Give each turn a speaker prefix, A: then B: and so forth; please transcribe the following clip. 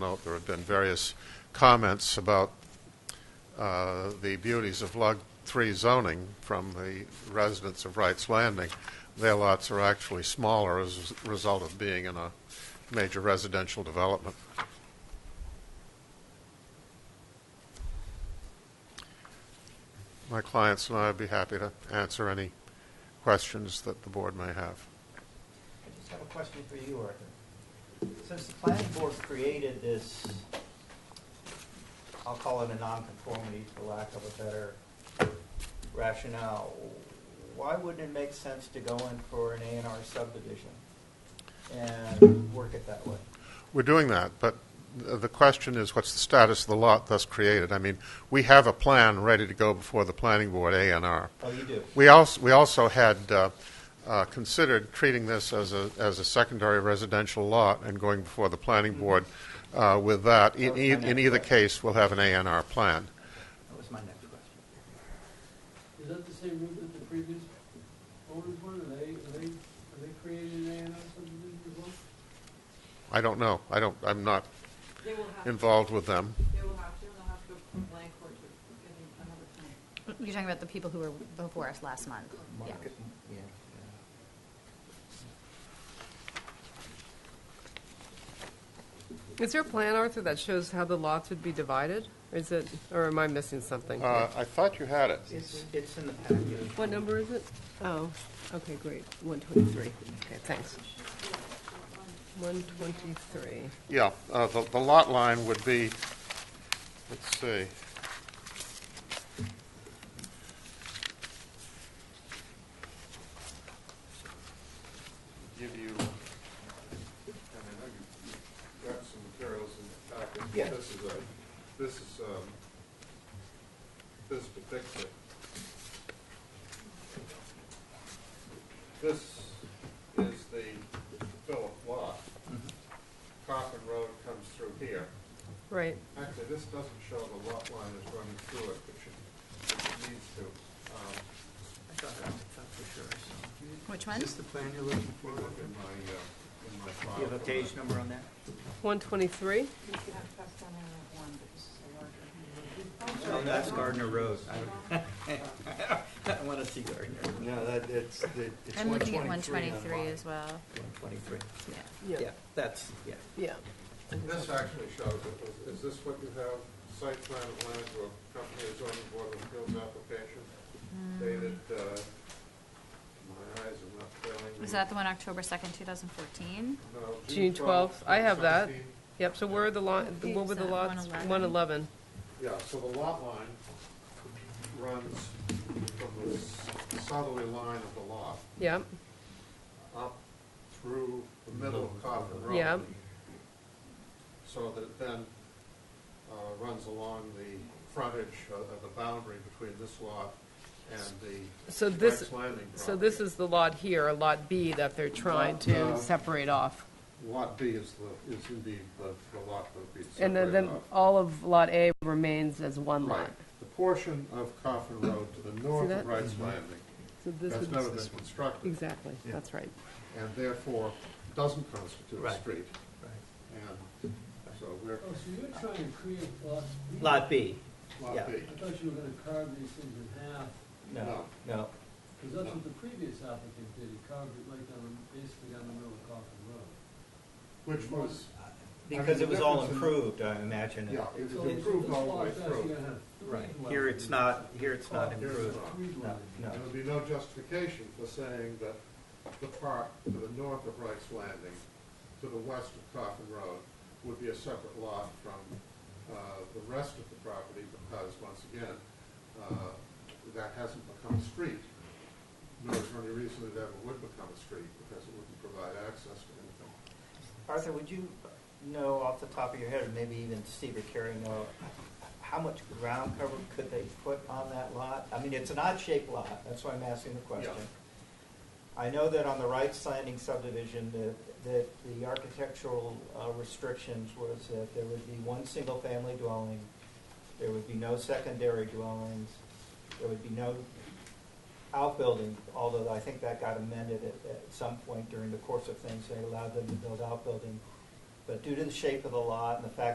A: note, there have been various comments about uh, the beauties of Lug 3 zoning from the residents of Wright's Landing. Their lots are actually smaller as a result of being in a major residential development. My clients and I would be happy to answer any questions that the board may have.
B: I just have a question for you, Arthur. Since the planning board created this, I'll call it a nonconformity for lack of a better rationale, why wouldn't it make sense to go in for an A and R subdivision and work it that way?
A: We're doing that, but th- the question is, what's the status of the lot thus created? I mean, we have a plan ready to go before the planning board, A and R.
B: Oh, you do?
A: We also, we also had uh, uh, considered treating this as a, as a secondary residential lot and going before the planning board uh, with that. In,
B: Okay,
A: in in
B: next
A: either
B: question.
A: case, we'll have an A and R plan.
B: That was my next question.
C: Is that the same route that the previous owners went, and they, and they, and they created an A and R subdivision as well?
A: I don't know. I don't, I'm not
D: They will have, to-
A: involved with them.
D: they will have to, and they'll have to go from blank or to getting another plan.
E: You're talking about the people who were before us last month? Yeah.
B: Market- yeah, yeah.
F: Is there a plan, Arthur, that shows how the lots would be divided? Or Is it, or am I missing something?
A: Uh, I thought you had it.
B: It's, it's in the package.
F: What number is it? Oh, okay, great, 123. Okay, thanks. 123.
A: Yeah, uh, the, the lot line would be, let's see. Give you, I mean, I know you- you've got some materials in the packet.
B: Yeah.
A: This is a, this is, um, this depicts it. This is the Philip lot.
B: Mm-hmm.
A: Coffin Road comes through here.
F: Right,
A: Actually, this doesn't show the lot line is running through it, which it, which it needs to. Um,
B: I thought I thought for sure I
E: Which one?
B: the plan you're looking
A: if you look in my, uh, in my file.
B: Do you have a page number on that?
F: 123?
D: You can have passed down in that one, but this is a larger.
B: No, Oh, that's Gardner Road. I want to see Gardner.
G: No, that, it's, the- it's
E: I'm looking at
G: 123 on
E: 123
G: mine.
E: as well.
B: One twenty-three.
E: Yeah.
B: Yeah, that's, yeah.
F: Yeah.
A: This actually shows it. Is, is this what you have? Site plan of land or company zoning board of appeals application
F: Hmm.
A: dated, uh, my eyes are not failing me.
E: Was that the one October 2nd, 2014?
A: No,
F: June 12th, I have that.
A: 2017.
F: Yep, so where are the lot,
E: Page
F: what were the
E: is that?
F: lots?
E: 111.
F: 111.
A: Yeah, so the lot line runs from the s- southerly line of the lot
F: Yep,
A: up through the middle of Coffin Road.
F: Yeah.
A: So that it then uh, runs along the frontage, uh, uh, the boundary between this lot and the
F: So this-
A: Wright's Landing
F: so this
A: property.
F: is the lot here, a lot B that they're trying
A: Lot, uh,
F: to separate off.
A: Lot B is the, is indeed the, the lot that would be
F: And then,
A: separated
F: then
A: off.
F: all of Lot A remains as one
A: Right,
F: lot.
A: the portion of Coffin Road to the north
F: that?
A: of Wright's Landing
F: So this
A: has
F: would,
A: never been constructed.
F: exactly,
B: Yeah.
F: that's right.
A: and therefore doesn't constitute a
B: Right.
A: street.
B: Right.
A: And so we're,
C: Oh, so you're trying to create lots.
B: Lot B. Yeah.
A: lot B,
C: I thought you were gonna carve these things in half,
B: No,
A: No.
B: no.
C: because that's what the previous applicant did, he carved it right down, the- basically down the middle of Coffin Road.
A: which was,
B: Because it was all improved, I imagine.
A: yeah, it was
C: So this
A: improved all the
C: lot
A: way
C: says you're
A: through.
C: gonna have three
B: Right. oh,
C: dwellings.
B: Here it's not, here it's not
A: Here it's
B: improved.
A: not.
C: Three
B: No,
C: dwellings.
B: no.
A: There would be no justification for saying that the part to the north of Wright's Landing, to the west of Coffin Road, would be a separate lot from uh, the rest of the property because, once again, uh, that hasn't become a street. Nor is there any reason it ever would become a street because it wouldn't provide access to anything.
B: Arthur, would you know off the top of your head, or maybe even Steve or Carrie know, how much ground cover could they put on that lot? I mean, it's an odd-shaped lot, that's why I'm asking the question. I know that on the right Landing subdivision, that, that the architectural uh, restrictions was that there would be one single-family dwelling, there would be no secondary dwellings, there would be no outbuilding, although I think that got amended at, at some point during the course of things, they allowed them to build outbuilding. But due to the shape of the lot and the fact